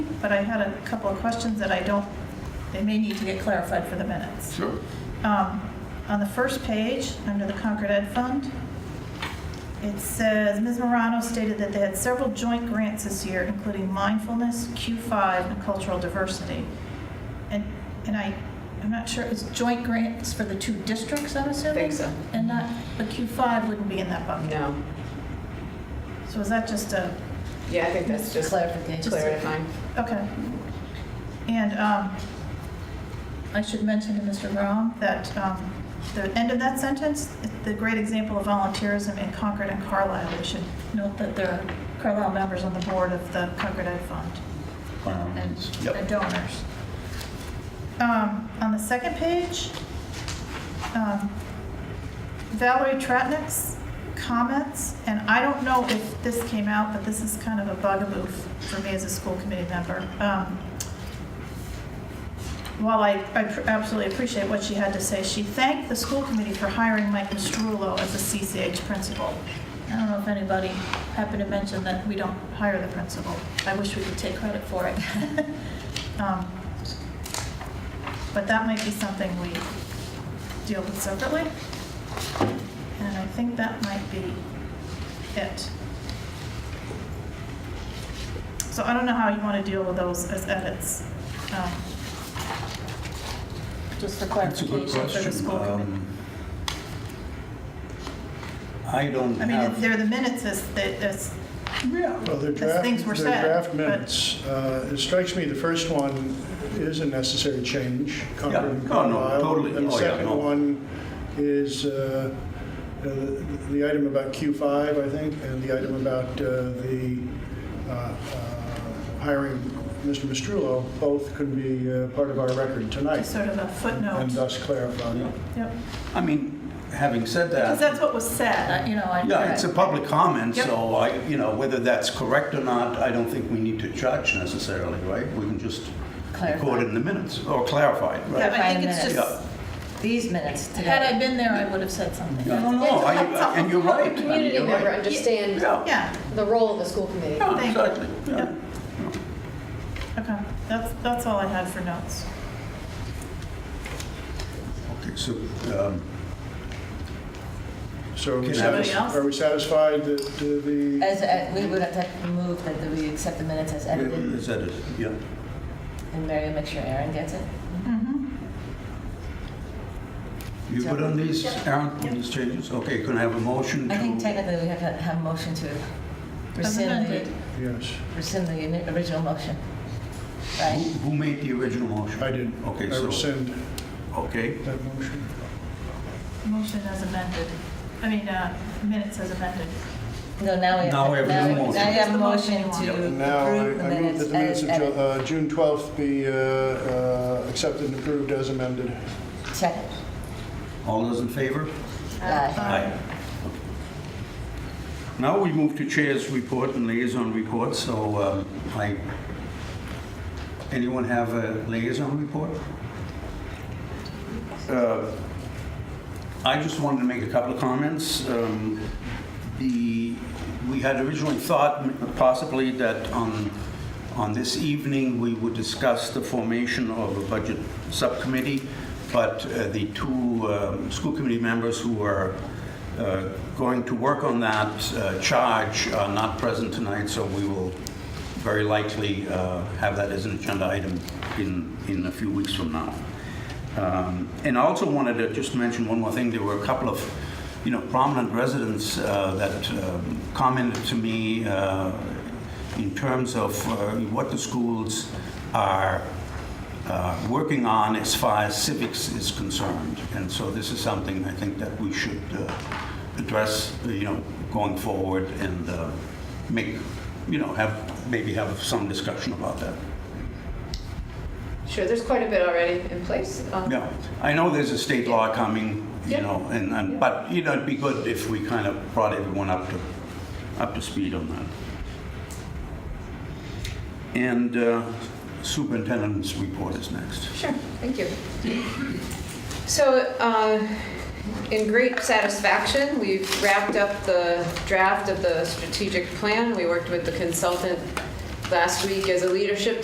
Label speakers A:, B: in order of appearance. A: But I had a couple of questions that I don't, they may need to get clarified for the minutes.
B: Sure.
A: Um, On the first page, under the Concord Ed Fund, it says, Ms. Morano stated that they had several joint grants this year, including mindfulness, Q5, and cultural diversity. And, and I, I'm not sure, is joint grants for the two districts, I'm
C: I
A: assuming?
C: think so.
A: And not, but Q5 wouldn't be in that bucket.
C: No.
A: So is that just a,
C: Yeah, I think that's just
D: Clarification.
C: clarifying.
A: okay. And um, I should mention to Mr. Grom that um, the end of that sentence, the great example of volunteerism in Concord and Carlisle, we should note that there are Carlisle members on the board of the Concord Ed Fund
B: Um,
A: and
B: yep.
A: and donors. Um, On the second page, um, Valerie Tratnik's comments, and I don't know if this came out, but this is kind of a bugaboo f- for me as a school committee member. Um, While I I pr- absolutely appreciate what she had to say, she thanked the school committee for hiring Mike Mastrullo as the CCH principal. I don't know if anybody happened to mention that we don't hire the principal. I wish we could take credit for it. Um, But that might be something we deal with separately. And I think that might be it. So I don't know how you want to deal with those as edits. um, Just for
B: That's a good
A: clarification for the
B: question.
A: school committee.
B: Um, I don't
A: I mean,
B: have,
A: they're the minutes as, as,
E: Yeah, well, the draft,
A: things were
E: the
A: said,
E: draft
A: but-
E: minutes, uh, it strikes me the first one is a necessary change,
B: Yeah.
E: Concord and
B: Oh, no,
E: Carlisle.
B: totally.
E: And
B: Oh,
E: the
B: yeah, no.
E: second one is uh, uh, the item about Q5, I think, and the item about uh, the uh, uh, hiring Mr. Mistrullo, both could be uh, part of our record
A: just
E: tonight,
A: sort of a
E: and
B: uh,
A: footnote.
E: thus clarify.
A: Yep.
B: I mean, having said
A: Because
B: that,
A: that's what was said, I- Uh, you know, I.
B: yeah, it's a public comment,
A: Yep.
B: so I, you know, whether that's correct or not, I don't think we need to judge necessarily, right? We can just record it in the minutes, or clarify it, right?
A: Yeah, I think it's
D: Clarifying
A: just,
B: Yeah.
D: These minutes
A: had
D: today.
A: I been there, I would have said something.
B: No, no, no, I- and you're right. I mean,
C: Community
B: you're
C: member
B: right.
C: understand
B: Yeah,
A: Yeah,
C: the role of the school committee.
B: yeah,
A: Thank you.
B: exactly, yeah.
A: okay, that's, that's all I had for notes.
B: Okay, so, um,
E: So are we
B: Can I have
A: a-
E: satis- are we satisfied that uh, the...
D: As, uh, we would have to move that we accept the minutes as edited,
B: is that it? Yeah.
D: and Mary will make sure Aaron gets it.
A: Mhm.
B: You good on these, Aaron, on these changes? Okay, can I have a motion to?
D: I think technically we have to have a motion to
A: As
D: rescind
A: amended.
D: the,
E: Yes,
D: rescind the ini- original motion,
B: Who
D: right?
B: who made the original motion?
E: I did.
B: Okay,
E: I
B: so-
E: rescind
B: Okay,
E: that motion.
A: Motion as amended, I mean, uh, minutes as amended.
D: No, now we have.
B: Now we have a new motion.
D: Now you
A: Just
D: have
A: the
D: a
A: motion
D: motion
A: you want.
D: to
E: Now, I
D: approve the
E: I move that the
D: minutes
E: minutes
D: as
E: of Ju-
D: edited.
E: uh, June 12th be uh, uh, accepted and approved as amended.
D: Second.
B: all those in favor?
D: Aye.
B: Aye. Now we move to Chair's report and liaison report, so um, I, anyone have a liaison report? Uh, I just wanted to make a couple of comments. Um, The, we had originally thought possibly that on, on this evening, we would discuss the formation of a budget subcommittee, but uh, the two um, school committee members who are uh, going to work on that uh, charge are not present tonight, so we will very likely uh, have that as an agenda item in, in a few weeks from now. Um, And I also wanted to just mention one more thing. There were a couple of, you know, prominent residents uh, that um, commented to me uh, in terms of uh, what the schools are uh, working on as far as civics is concerned. And so this is something I think that we should uh, address, you know, going forward and uh, make, you know, have, maybe have some discussion about that.
C: Sure, there's quite a bit already in place. Um,
B: Yeah, I know there's a state law coming, you
C: Yeah.
B: know, and, and,
C: Yeah.
B: but, you know, it'd be good if we kind of brought everyone up to, up to speed on that. And uh, superintendent's report is next.
C: Sure, thank you. So, uh, in great satisfaction, we've wrapped up the draft of the strategic plan. We worked with the consultant last week as a leadership